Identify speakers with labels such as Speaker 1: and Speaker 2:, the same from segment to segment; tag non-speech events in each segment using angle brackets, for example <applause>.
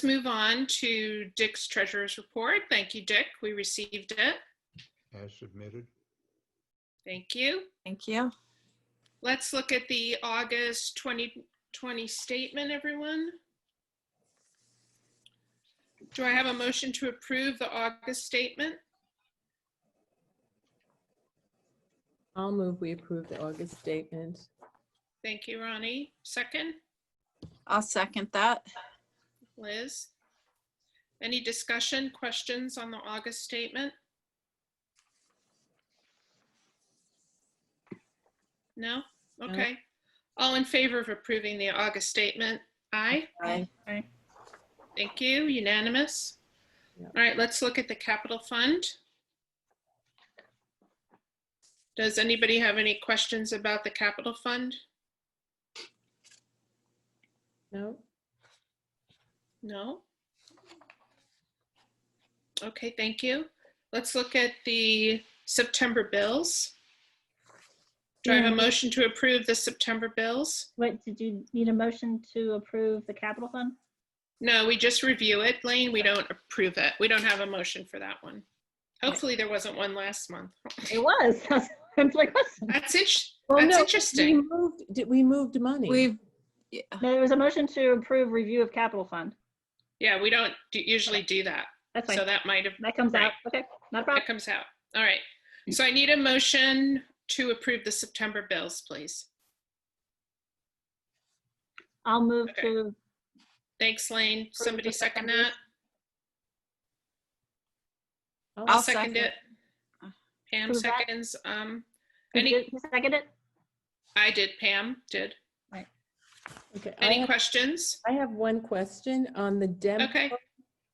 Speaker 1: Let's move on to Dick's treasurer's report. Thank you, Dick. We received it.
Speaker 2: as submitted.
Speaker 1: Thank you.
Speaker 3: Thank you.
Speaker 1: Let's look at the August 2020 statement, everyone. Do I have a motion to approve the August statement?
Speaker 4: I'll move we approve the August statement.
Speaker 1: Thank you, Ronnie. Second,
Speaker 3: I'll second that.
Speaker 1: Liz. Any discussion, questions on the August statement? No? Okay. All in favor of approving the August statement? Aye.
Speaker 3: Aye.
Speaker 1: Thank you, unanimous.
Speaker 4: Yeah.
Speaker 1: All right, let's look at the capital fund. Does anybody have any questions about the capital fund?
Speaker 4: No?
Speaker 1: No? Okay, thank you. Let's look at the September bills. Do I have a
Speaker 5: Yeah.
Speaker 1: motion to approve the September bills?
Speaker 5: Wait, did you need a motion to approve the capital fund?
Speaker 1: No, we just review it, Lane. We don't approve it. We don't have a motion for that one. Hopefully, there wasn't one last month.
Speaker 5: It <laughs> was. I'm like, what's-
Speaker 1: That's it.
Speaker 4: Well,
Speaker 1: That's
Speaker 4: no, We
Speaker 1: interesting.
Speaker 4: moved, did- we moved money.
Speaker 3: We've, yeah,
Speaker 5: No, there was a motion to approve review of capital fund.
Speaker 1: Yeah, we don't do- usually do that.
Speaker 5: That's
Speaker 1: So
Speaker 5: fine.
Speaker 1: that might have,
Speaker 5: That comes out. Okay, not a problem.
Speaker 1: that comes out. All right. So I need a motion to approve the September bills, please.
Speaker 5: I'll move
Speaker 1: Okay.
Speaker 5: to,
Speaker 1: Thanks, Lane.
Speaker 5: the
Speaker 1: Somebody second
Speaker 5: September.
Speaker 1: that?
Speaker 3: I'll
Speaker 1: I'll
Speaker 4: Oh,
Speaker 1: second
Speaker 3: second.
Speaker 1: it. Pam
Speaker 5: Approve that.
Speaker 1: seconds. Um,
Speaker 5: did
Speaker 1: Any-
Speaker 5: you who seconded it?
Speaker 1: I did, Pam did.
Speaker 4: okay. I
Speaker 1: Any
Speaker 4: have-
Speaker 1: questions?
Speaker 4: I have one question on the Dem.
Speaker 1: Okay.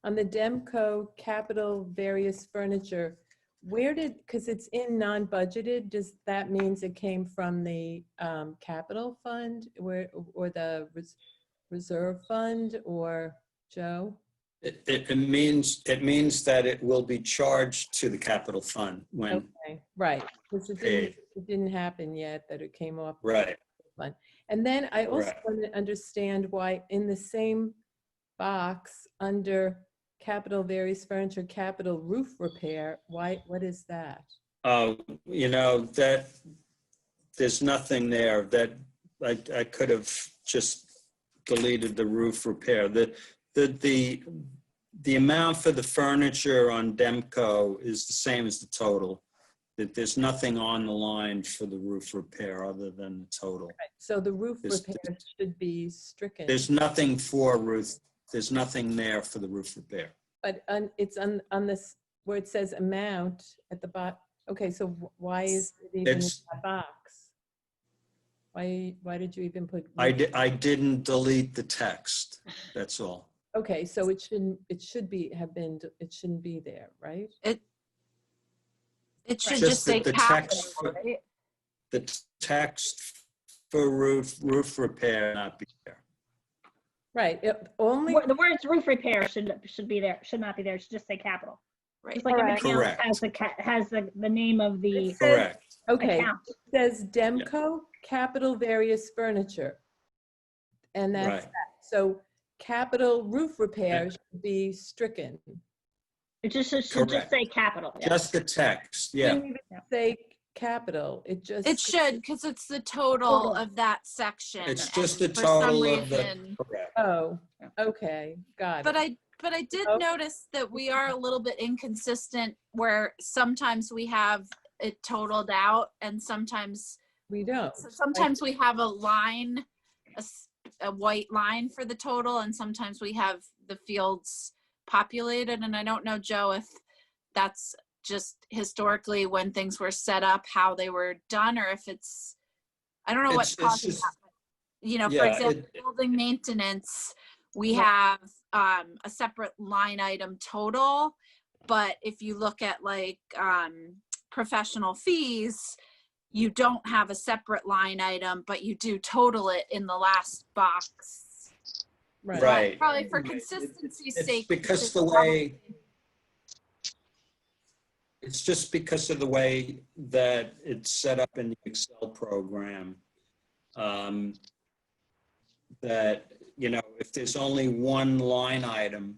Speaker 4: On the Demco capital various furniture. Where did, because it's in non-budgeted, does that means it came from the um, capital fund where, or the res- reserve fund or Joe?
Speaker 6: It, it it means, it means that it will be charged to the capital fund when,
Speaker 4: Okay, right, because it didn't,
Speaker 6: Paid.
Speaker 4: it didn't happen yet that it came off.
Speaker 6: right,
Speaker 4: And then I also
Speaker 6: Correct.
Speaker 4: want to understand why in the same box under capital various furniture, capital roof repair, why, what is that?
Speaker 6: uh, you know, that, there's nothing there that, I, I could have just deleted the roof repair. The, the, the, the amount for the furniture on Demco is the same as the total. That there's nothing on the line for the roof repair other than the total.
Speaker 4: So the roof
Speaker 6: There's-
Speaker 4: repair should be stricken,
Speaker 6: There's nothing for roof, there's nothing there for the roof repair.
Speaker 4: but on- it's on, on this, where it says amount at the bot, okay, so wh- why is it even in
Speaker 6: It's-
Speaker 4: that box? Why, why did you even put?
Speaker 6: I,
Speaker 4: roof-
Speaker 6: di- I didn't delete the text, that's all.
Speaker 4: Okay, so it shouldn't, it should be, have been, it shouldn't be there, right?
Speaker 3: it should
Speaker 6: Just
Speaker 3: just
Speaker 6: the-
Speaker 3: say
Speaker 6: the
Speaker 3: capital,
Speaker 6: text for-
Speaker 3: right?
Speaker 6: The t- text for roof, roof repair not be there.
Speaker 4: Right, it- only,
Speaker 5: Wor- The words roof repair should, should be there, should not be there. It should just say capital.
Speaker 3: Right.
Speaker 5: Just like everything else
Speaker 6: Correct.
Speaker 5: has the, ca- has the, the name of the
Speaker 4: It says-
Speaker 6: Correct,
Speaker 4: okay,
Speaker 5: account.
Speaker 4: says Demco Capital Various Furniture. And that's,
Speaker 6: right.
Speaker 4: so capital roof repair should be stricken.
Speaker 5: It just, it should just
Speaker 6: Correct.
Speaker 5: say capital. yeah.
Speaker 6: Just the text, yeah.
Speaker 4: Shouldn't even
Speaker 5: Yeah.
Speaker 4: Say capital, it just.
Speaker 3: It should, because it's the total
Speaker 5: Total.
Speaker 3: of that section.
Speaker 6: It's
Speaker 3: and
Speaker 6: just the
Speaker 3: for some
Speaker 6: total of the,
Speaker 3: reason-
Speaker 6: correct.
Speaker 4: Oh, okay, got
Speaker 3: But
Speaker 4: it.
Speaker 3: I, but I did
Speaker 4: Okay.
Speaker 3: notice that we are a little bit inconsistent where sometimes we have it totaled out and sometimes,
Speaker 4: We don't.
Speaker 3: so sometimes we have a line, a, s- a white line for the total and sometimes we have the fields populated. And I don't know, Joe, if that's just historically when things were set up, how they were done, or if it's, I don't know
Speaker 6: It's-
Speaker 3: what
Speaker 6: it's
Speaker 3: causes
Speaker 6: just-
Speaker 3: that. but, You know, for
Speaker 6: Yeah,
Speaker 3: example,
Speaker 6: it-
Speaker 3: building maintenance, we
Speaker 4: Yeah.
Speaker 3: have um, a separate line item total. But if you look at like um, professional fees, you don't have a separate line item, but you do total it in the last box.
Speaker 4: Right,
Speaker 6: Right.
Speaker 3: Probably for
Speaker 6: Right. It-
Speaker 3: consistency's
Speaker 6: it's
Speaker 3: sake.
Speaker 6: because the
Speaker 3: it's
Speaker 6: way- It's just because of the way that it's set up in the Excel program. um, That you know, if there's only one line item